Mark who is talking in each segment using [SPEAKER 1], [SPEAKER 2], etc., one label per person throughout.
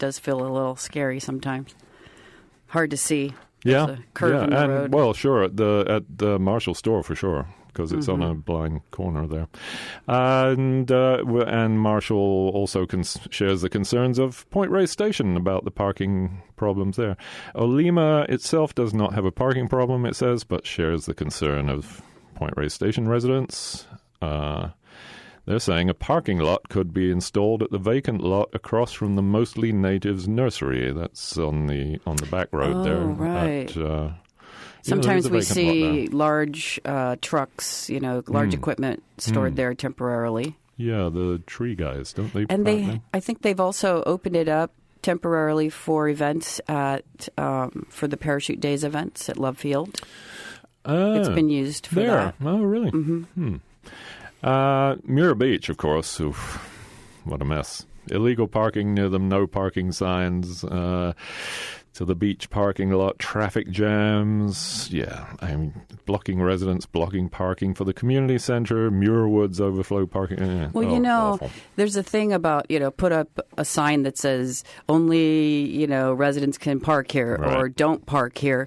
[SPEAKER 1] does feel a little scary sometimes. Hard to see.
[SPEAKER 2] Yeah,
[SPEAKER 1] There's a curve
[SPEAKER 2] yeah,
[SPEAKER 1] in the
[SPEAKER 2] and
[SPEAKER 1] road.
[SPEAKER 2] well, sure at the at the Marshall store for sure because it's on a
[SPEAKER 1] Mm-hmm.
[SPEAKER 2] blind corner there, and uh, w- and Marshall also cons- shares the concerns of Point Reyes Station about the parking problems there. Olima itself does not have a parking problem, it says, but shares the concern of Point Reyes Station residents. Uh, they're saying a parking lot could be installed at the vacant lot across from the mostly natives nursery. That's on the on the back road
[SPEAKER 1] Oh,
[SPEAKER 2] there. at,
[SPEAKER 1] right.
[SPEAKER 2] uh, yeah, there is
[SPEAKER 1] Sometimes
[SPEAKER 2] a
[SPEAKER 1] we
[SPEAKER 2] vacant lot
[SPEAKER 1] see
[SPEAKER 2] there.
[SPEAKER 1] large uh, trucks, you know, large
[SPEAKER 2] Mm.
[SPEAKER 1] equipment stored there temporarily.
[SPEAKER 2] Yeah, the tree guys, don't they?
[SPEAKER 1] And
[SPEAKER 2] plant
[SPEAKER 1] they,
[SPEAKER 2] them?
[SPEAKER 1] I think they've also opened it up temporarily for events at um, for the parachute days events at Love Field. It's
[SPEAKER 2] Ah,
[SPEAKER 1] been used for
[SPEAKER 2] there.
[SPEAKER 1] that. Mm-hmm.
[SPEAKER 2] Oh, really? Hmm. Uh, Muir Beach, of course. Oof, what a mess. Illegal parking near them, no parking signs. Uh, to the beach parking lot, traffic jams. Yeah, I mean, blocking residents, blocking parking for the community centre, Muir Woods overflow parking. eh,
[SPEAKER 1] Well,
[SPEAKER 2] oh,
[SPEAKER 1] you know,
[SPEAKER 2] awful.
[SPEAKER 1] there's a thing about, you know, put up a sign that says only, you know, residents can park here or
[SPEAKER 2] Right.
[SPEAKER 1] don't park here.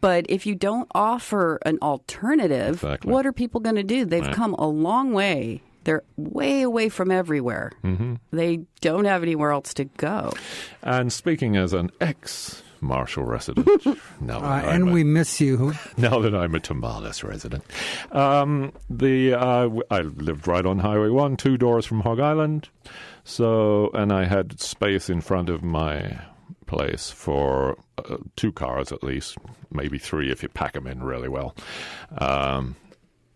[SPEAKER 1] But if you don't offer an alternative,
[SPEAKER 2] Exactly.
[SPEAKER 1] what are people going to do? They've come a long way. They're way away from everywhere. Mm-hmm. They don't have anywhere else to go.
[SPEAKER 2] And speaking as an ex Marshall resident, now
[SPEAKER 3] Uh,
[SPEAKER 2] that I'm
[SPEAKER 3] and
[SPEAKER 2] a-
[SPEAKER 3] we miss you.
[SPEAKER 2] now that I'm a Tamales resident. Um, the uh, w- I lived right on Highway One, two doors from Hog Island, so and I had space in front of my place for uh, two cars at least, maybe three if you pack them in really well. Um,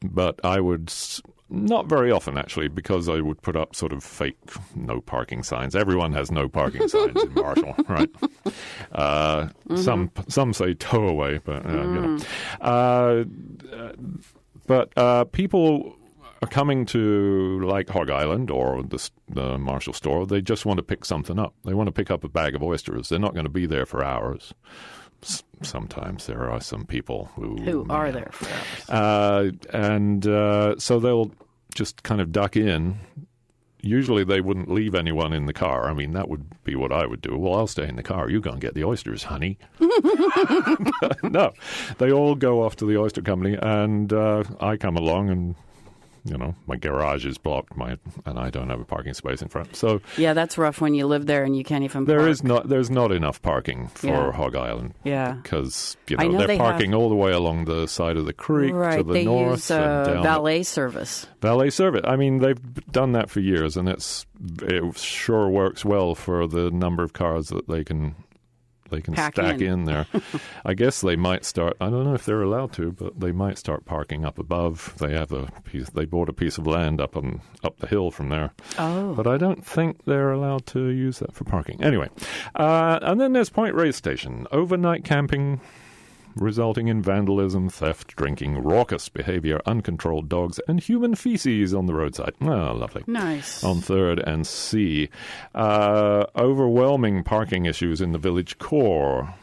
[SPEAKER 2] but I would s- not very often actually because I would put up sort of fake no parking signs. Everyone has no parking signs in Marshall, right? Uh,
[SPEAKER 1] Mm-hmm.
[SPEAKER 2] Some some say tow away, but uh, you know. Uh,
[SPEAKER 1] Mm-hmm.
[SPEAKER 2] but uh, people are coming to like Hog Island or the, s- the Marshall store. They just want to pick something up. They want to pick up a bag of oysters. They're not going to be there for hours. S- sometimes there are some people who
[SPEAKER 1] Who are
[SPEAKER 2] man.
[SPEAKER 1] there for us?
[SPEAKER 2] Uh, and uh, so they'll just kind of duck in. Usually they wouldn't leave anyone in the car. I mean, that would be what I would do. Well, I'll stay in the car. You go and get the oysters, honey. But no, they all go off to the oyster company, and uh, I come along and. You know, my garage is blocked, my and I don't have a parking space in front. So
[SPEAKER 1] Yeah, that's rough when you live there and you can't even
[SPEAKER 2] there
[SPEAKER 1] park.
[SPEAKER 2] is not there's not enough parking for
[SPEAKER 1] Yeah.
[SPEAKER 2] Hog Island
[SPEAKER 1] Yeah.
[SPEAKER 2] because you
[SPEAKER 1] I
[SPEAKER 2] know,
[SPEAKER 1] know
[SPEAKER 2] they're
[SPEAKER 1] they have-
[SPEAKER 2] parking all the way along the side of the creek to
[SPEAKER 1] Right.
[SPEAKER 2] the
[SPEAKER 1] They
[SPEAKER 2] north
[SPEAKER 1] use uh,
[SPEAKER 2] and down the-
[SPEAKER 1] valet service.
[SPEAKER 2] valet service. I mean, they've done that for years, and it's it sure works well for the number of cars that they can they can
[SPEAKER 1] Pack
[SPEAKER 2] stack
[SPEAKER 1] in.
[SPEAKER 2] in, there. I guess they might start. I don't know if they're allowed to, but they might start parking up above. They have a piece. They bought a piece of land up on up the hill from there,
[SPEAKER 1] Oh.
[SPEAKER 2] but I don't think they're allowed to use that for parking. Anyway, uh, and then there's Point Reyes Station, overnight camping resulting in vandalism, theft, drinking, raucous behavior, uncontrolled dogs, and human feces on the roadside. Ah, lovely.
[SPEAKER 1] Nice.
[SPEAKER 2] On third and C, uh, overwhelming parking issues in the village core.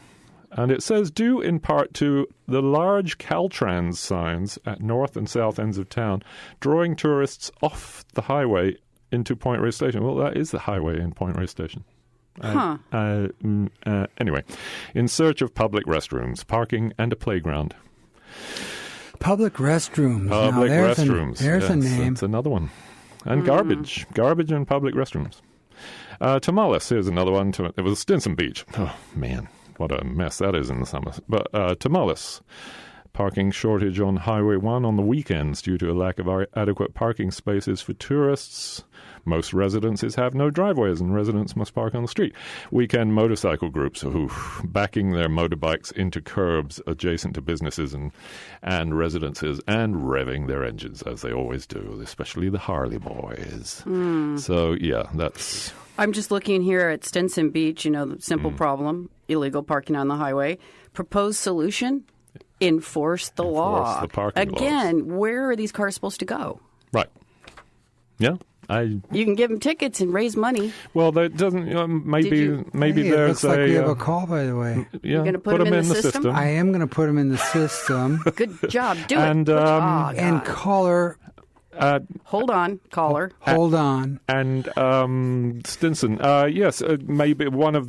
[SPEAKER 2] And it says due in part to the large Caltrans signs at north and south ends of town, drawing tourists off the highway into Point Reyes Station. Well, that is the highway in Point Reyes Station.
[SPEAKER 1] huh.
[SPEAKER 2] Uh, mm, uh, anyway, in search of public restrooms, parking, and a playground.
[SPEAKER 3] Public restrooms. Now,
[SPEAKER 2] Public
[SPEAKER 3] there's a-
[SPEAKER 2] restrooms.
[SPEAKER 3] there's a
[SPEAKER 2] Yes,
[SPEAKER 3] name.
[SPEAKER 2] That's another one. And garbage. Garbage and public restrooms. Uh, tamales. Here's another one. Tam- It was Stinson Beach. Oh, man. What a mess that is in the summer. But uh, Tamales. Parking shortage on Highway 1 on the weekends due to a lack of ar- adequate parking spaces for tourists. Most residences have no driveways and residents must park on the street. Weekend motorcycle groups who backing their motorbikes into curbs adjacent to businesses and, and residences and revving their engines as they always do, especially the Harley boys. So, yeah, that's
[SPEAKER 1] I'm just looking here at Stinson Beach, you know, the
[SPEAKER 2] Mm.
[SPEAKER 1] simple problem illegal parking on the highway. Proposed solution enforce the law.
[SPEAKER 2] the parking laws.
[SPEAKER 1] Again, where are these cars supposed to go?
[SPEAKER 2] right. Yeah. I
[SPEAKER 1] You can give them tickets and raise money.
[SPEAKER 2] well, that doesn't. Um, maybe
[SPEAKER 1] you-
[SPEAKER 2] maybe
[SPEAKER 3] Hey, it
[SPEAKER 2] there's
[SPEAKER 3] looks like we have
[SPEAKER 2] uh,
[SPEAKER 3] a call, by the way.
[SPEAKER 2] yeah,
[SPEAKER 1] You're gonna put 'em
[SPEAKER 2] them
[SPEAKER 1] in the system?
[SPEAKER 3] I am going to put them in the system.
[SPEAKER 1] Good job. Do
[SPEAKER 2] And,
[SPEAKER 1] it. Good
[SPEAKER 2] um,
[SPEAKER 1] job.
[SPEAKER 3] and caller
[SPEAKER 2] Uh,
[SPEAKER 1] Hold on, caller.
[SPEAKER 3] Hold on.
[SPEAKER 2] and um, Stinson, uh, yes, uh, maybe one of the